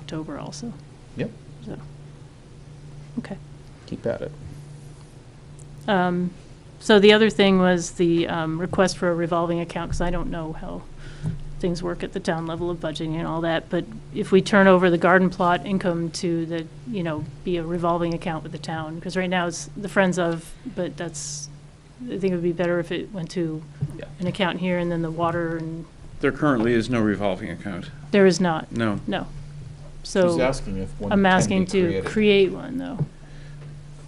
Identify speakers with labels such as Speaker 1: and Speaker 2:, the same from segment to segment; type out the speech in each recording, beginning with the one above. Speaker 1: October also,
Speaker 2: Yep,
Speaker 1: so, okay.
Speaker 2: keep at it.
Speaker 1: Um, So the other thing was the um, request for a revolving account, because I don't know how things work at the town level of budgeting and all that, but if we turn over the garden plot income to the, you know, be a revolving account with the town, because right now it's the Friends of, but that's, I think it would be better if it went to
Speaker 2: Yeah.
Speaker 1: an account here and then the water, and
Speaker 3: There currently is no revolving account.
Speaker 1: there is not,
Speaker 3: No.
Speaker 1: no.
Speaker 2: She's
Speaker 1: So
Speaker 2: asking if one can be created.
Speaker 1: I'm asking to create one, though.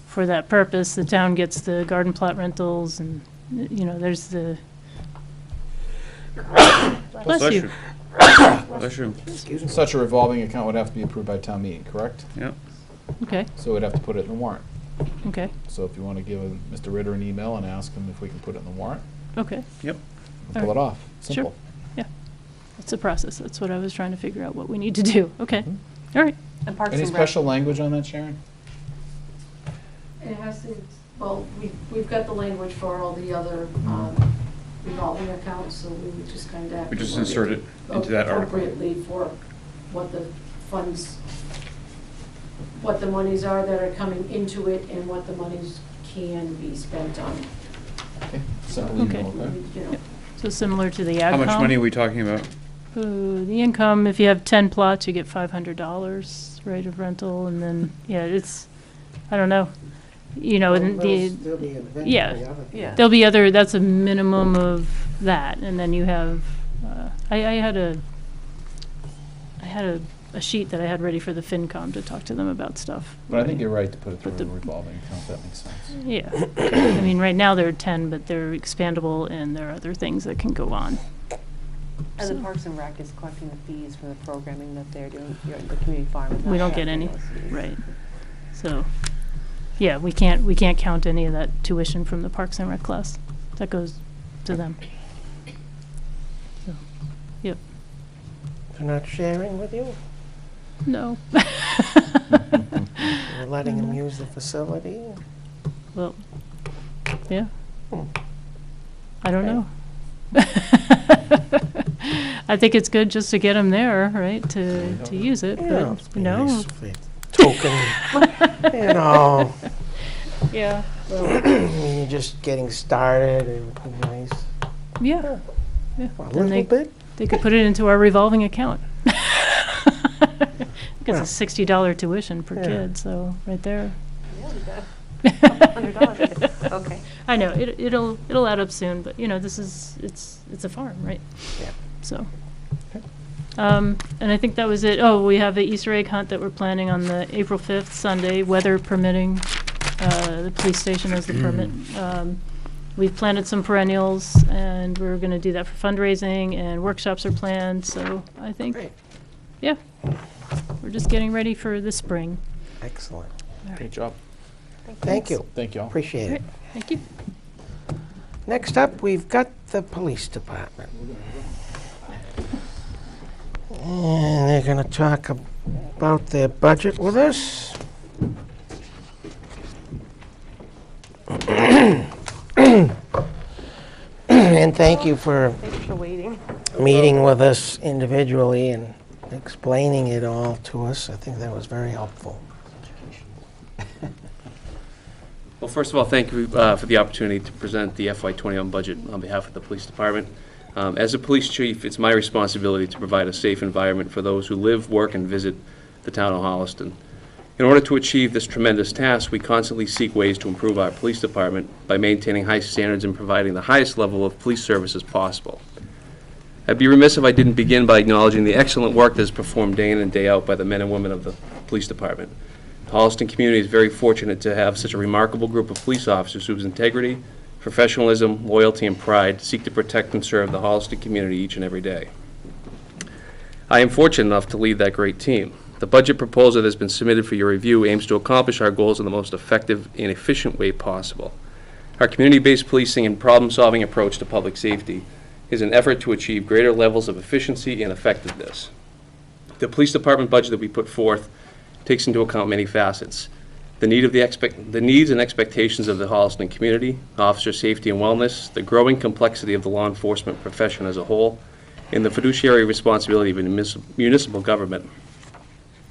Speaker 1: For that purpose, the town gets the garden plot rentals and, you know, there's the, bless you.
Speaker 3: Bless you.
Speaker 2: Such a revolving account would have to be approved by town meeting, correct?
Speaker 3: Yep.
Speaker 1: Okay,
Speaker 2: So we'd have to put it in the warrant.
Speaker 1: okay,
Speaker 2: So if you want to give uh, Mr. Ritter an email and ask him if we can put it in the warrant,
Speaker 1: okay.
Speaker 3: Yep.
Speaker 2: we'll pull
Speaker 1: Alright.
Speaker 2: it off.
Speaker 1: Sure.
Speaker 2: Simple.
Speaker 1: It's a process. That's what I was trying to figure out, what we need to do. Okay,
Speaker 2: Mhm.
Speaker 1: all right.
Speaker 4: And Parks
Speaker 2: Any
Speaker 4: and Rec.
Speaker 2: special language on that, Sharon?
Speaker 5: It has to, well, we, we've got the language for all the other
Speaker 2: Mm-hmm.
Speaker 5: um, revolving accounts, so we would just kind of.
Speaker 3: We just insert it into that article.
Speaker 5: Appropriately for what the funds, what the monies are that are coming into it and what the monies can be spent on,
Speaker 2: Okay, Simple email,
Speaker 1: Okay.
Speaker 2: okay?
Speaker 5: you know.
Speaker 1: So similar to the AgCom.
Speaker 3: How much money are we talking about?
Speaker 1: Uh, The income, if you have 10 plots, you get $500 rate of rental, and then, yeah, it's, I don't know. You know, and the. yeah,
Speaker 4: Yeah.
Speaker 1: There'll be other, that's a minimum of that, and then you have, uh, I, I had a, I had a, a sheet that I had ready for the FinCom to talk to them about stuff.
Speaker 2: But I think you're right to put it through
Speaker 1: But
Speaker 2: a
Speaker 1: the-
Speaker 2: revolving account, that makes sense.
Speaker 1: Yeah, I mean, right now there are ten, but they're expandable and there are other things that can go on.
Speaker 4: And the
Speaker 1: So-
Speaker 4: Parks and Rec is collecting the fees for the programming that they're doing, you know, the community farm. is
Speaker 1: We
Speaker 4: not
Speaker 1: don't get any,
Speaker 4: collecting those fees.
Speaker 1: right. So, yeah, we can't, we can't count any of that tuition from the Parks and Rec class. That goes to them. So, Yep,
Speaker 6: They're not sharing with you?
Speaker 1: no.
Speaker 6: You're letting them use the facility?
Speaker 1: Well, yeah. I don't
Speaker 4: Right.
Speaker 1: know. I think it's good just to get them there, right, to, to use it,
Speaker 6: Yeah,
Speaker 1: but,
Speaker 6: it's
Speaker 1: you
Speaker 6: been
Speaker 1: know.
Speaker 6: nice if they Token, you know,
Speaker 1: Yeah.
Speaker 6: I mean, you're just getting started, it would be nice.
Speaker 1: Yeah, yeah.
Speaker 6: A
Speaker 1: Then
Speaker 6: little
Speaker 1: they,
Speaker 6: bit,
Speaker 1: they could put it into our revolving account. It's a sixty dollar tuition per
Speaker 6: Yeah.
Speaker 1: kid, so, right there.
Speaker 4: Yeah, we got $100,
Speaker 1: I
Speaker 4: okay.
Speaker 1: know, it, it'll, it'll add up soon, but, you know, this is, it's, it's a farm, right?
Speaker 6: yeah.
Speaker 1: So. Um, and I think that was it. Oh, we have the Easter egg hunt that we're planning on the April fifth, Sunday, weather permitting. Uh, the police station has the permit. Um, we've planted some perennials and we're gonna do that for fundraising and workshops are planned, so I think,
Speaker 6: Great,
Speaker 1: yeah. We're just getting ready for the spring.
Speaker 6: excellent.
Speaker 1: All
Speaker 2: Great
Speaker 1: right,
Speaker 2: job.
Speaker 6: Thank you,
Speaker 2: Thank you all.
Speaker 6: appreciate it.
Speaker 1: thank you.
Speaker 6: Next up, we've got the police department. And they're gonna talk ab- about their budget with us. And thank you for
Speaker 4: Thanks for waiting.
Speaker 6: meeting with us individually and explaining it all to us. I think that was very helpful.
Speaker 7: Well, first of all, thank you uh, for the opportunity to present the FY21 budget on behalf of the police department. Um, As a police chief, it's my responsibility to provide a safe environment for those who live, work, and visit the town of Holliston. In order to achieve this tremendous task, we constantly seek ways to improve our police department by maintaining high standards and providing the highest level of police services possible. I'd be remiss if I didn't begin by acknowledging the excellent work that is performed day in and day out by the men and women of the police department. The Holliston community is very fortunate to have such a remarkable group of police officers whose integrity, professionalism, loyalty, and pride seek to protect and serve the Holliston community each and every day. I am fortunate enough to lead that great team. The budget proposal that has been submitted for your review aims to accomplish our goals in the most effective and efficient way possible. Our community-based policing and problem-solving approach to public safety is an effort to achieve greater levels of efficiency and effectiveness. The police department budget that we put forth takes into account many facets. The need of the expect, the needs and expectations of the Holliston community, officer safety and wellness, the growing complexity of the law enforcement profession as a whole, and the fiduciary responsibility of munis- municipal government.